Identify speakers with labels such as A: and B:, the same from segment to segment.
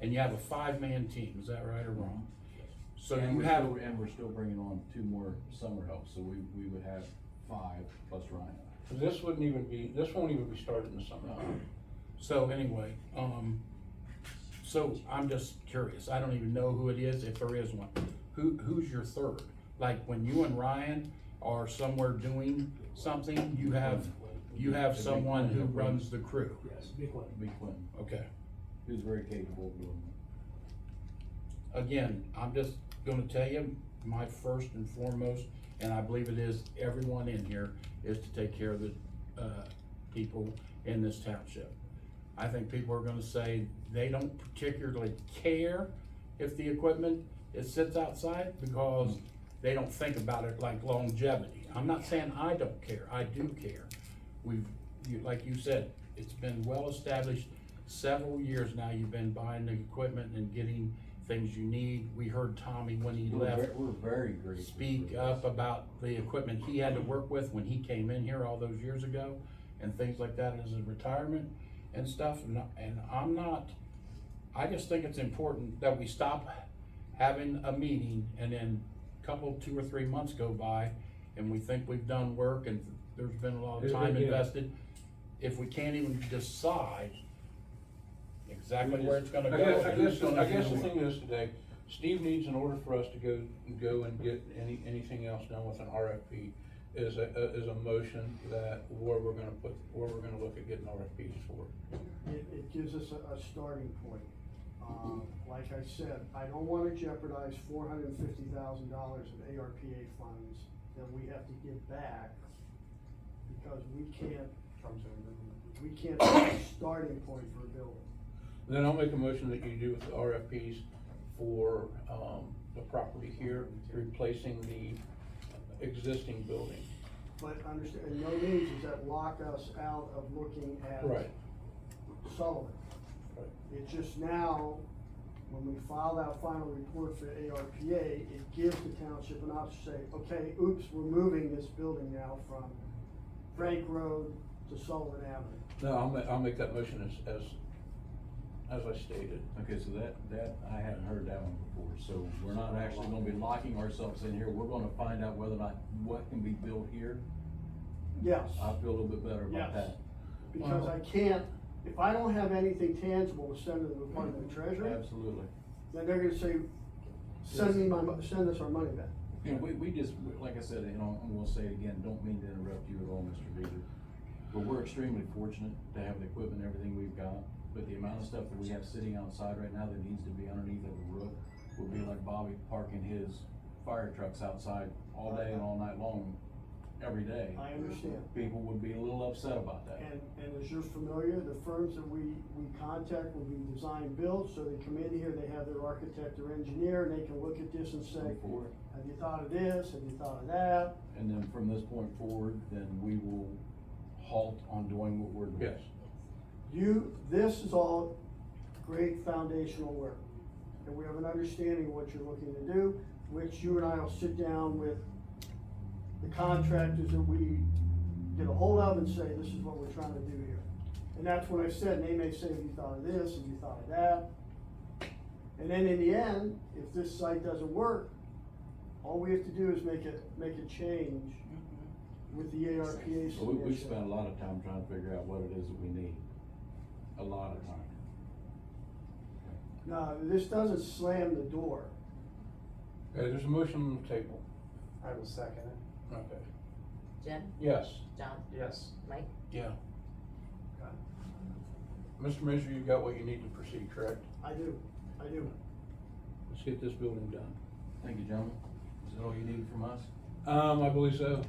A: and you have a five-man team, is that right or wrong? So
B: And
A: you
B: we're
A: have,
B: still- And we're still bringing on two more summer help, so we, we would have five plus Ryan.
C: So This wouldn't even be, this won't even be started in the summer.
A: so anyway, um, so I'm just curious, I don't even know who it is, if there is one. Who, who's your third? Like, when you and Ryan are somewhere doing something, you have, you have someone who runs the crew?
D: Yes, big one.
B: It'd be Quentin,
A: Okay.
B: who's very capable of doing
A: again, I'm just gonna tell you, my first and foremost, and I believe it is everyone in here, is to take care of the, uh, people in this township. I think people are gonna say they don't particularly care if the equipment, it sits outside, because they don't think about it like longevity. I'm not saying I don't care, I do care. We've, you, like you said, it's been well established, several years now, you've been buying the equipment and getting things you need. We heard Tommy when he
B: it. We're
A: left
B: ver- We're very grateful.
A: speak up about the equipment he had to work with when he came in here all those years ago and things like that as his retirement and stuff. And, and I'm not, I just think it's important that we stop having a meeting and then a couple, two or three months go by and we think we've done work and there's been a lot of
D: Here's
A: time
D: again.
A: invested. If we can't even decide exactly where it's
C: I
A: gonna go.
C: guess, I
A: and who's
C: guess, I
A: gonna
C: guess
A: do
C: the
A: it.
C: thing is today, Steve needs in order for us to go, go and get any, anything else done with an RFP is a, a- is a motion that where we're gonna put, where we're gonna look at getting RFPs for.
E: it, it gives us a, a starting point. Um, like I said, I don't wanna jeopardize four hundred and fifty thousand dollars of ARPA funds that we have to give back because we can't, we can't be a starting point for a building.
C: Then I'll make a motion that you do with the RFPs for, um, the property here, replacing the existing building.
E: But understand, and no means does that lock us out of looking at
C: Right.
E: Sullivan.
C: Right.
E: It's just now, when we file that final report for ARPA, it gives the township an option to say, okay, oops, we're moving this building now from Frank Road to Sullivan Avenue.
C: No, I'll ma- I'll make that motion as, as, as I stated.
B: Okay, so that, that, I hadn't heard that one before, so we're not actually gonna be locking ourselves in here, we're gonna find out whether or not what can be built here.
E: Yes,
B: I feel a little bit better about
E: Yes.
B: that.
E: because I can't, if I don't have anything tangible to send to the Department of Treasury,
B: Absolutely.
E: then they're gonna say, send me my, mo- send us our money back.
B: And we, we just, like I said, and I'm, I'm gonna say it again, don't mean to interrupt you at all, Mr. Beaver, but we're extremely fortunate to have the equipment, and everything we've got, but the amount of stuff that we have sitting outside right now that needs to be underneath of a roof would be like Bobby parking his fire trucks outside all day and all night long, every day.
E: I understand.
B: People would be a little upset about that.
E: And, and as you're familiar, the firms that we, we contact will be design build, so they come in here, they have their architect or engineer, and they can look at this and say,
B: Before.
E: have you thought of this, have you thought of that?
B: And then from this point forward, then we will halt on doing what we're doing.
C: Yes.
E: You, this is all great foundational work, and we have an understanding of what you're looking to do, which you and I will sit down with the contractors that we get a hold of and say, this is what we're trying to do here. And that's what I said, and they may say, have you thought of this, have you thought of that? And then in the end, if this site doesn't work, all we have to do is make it, make a change with the ARPA
B: Mm-hmm. Well, We, we
E: submission.
B: spent a lot of time trying to figure out what it is that we need, a lot of time.
E: No, this doesn't slam the door.
C: Okay, Uh, there's a motion on the table.
D: I will second it.
C: Okay.
F: Jim,
C: Yes.
F: John,
D: Yes.
F: Mike,
A: Yeah,
C: Mr. Manager, you've got what you need to proceed, correct?
E: I do, I do.
C: Let's get this building done.
B: Thank you, gentlemen. Is that all you needed from us?
C: Um, I believe so.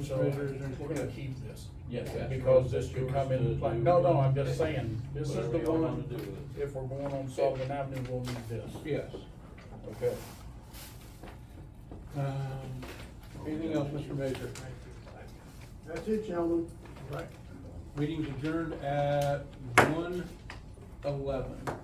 A: so
C: Mr. Manager, is there
A: we're gonna
C: anything?
A: keep this.
B: Yes,
C: that's
A: Because
C: right.
A: this could
C: Yours
A: come into
C: to
A: play,
C: do.
A: no, no, I'm just saying, this is
C: Whatever
A: the
C: y'all
A: one,
C: want to do with
A: if we're going on Sullivan Avenue, we'll need this,
C: Yes.
A: okay?
C: Um, anything else, Mr. Manager?
E: That's it, gentlemen.
C: Right. Meeting's adjourned at one eleven.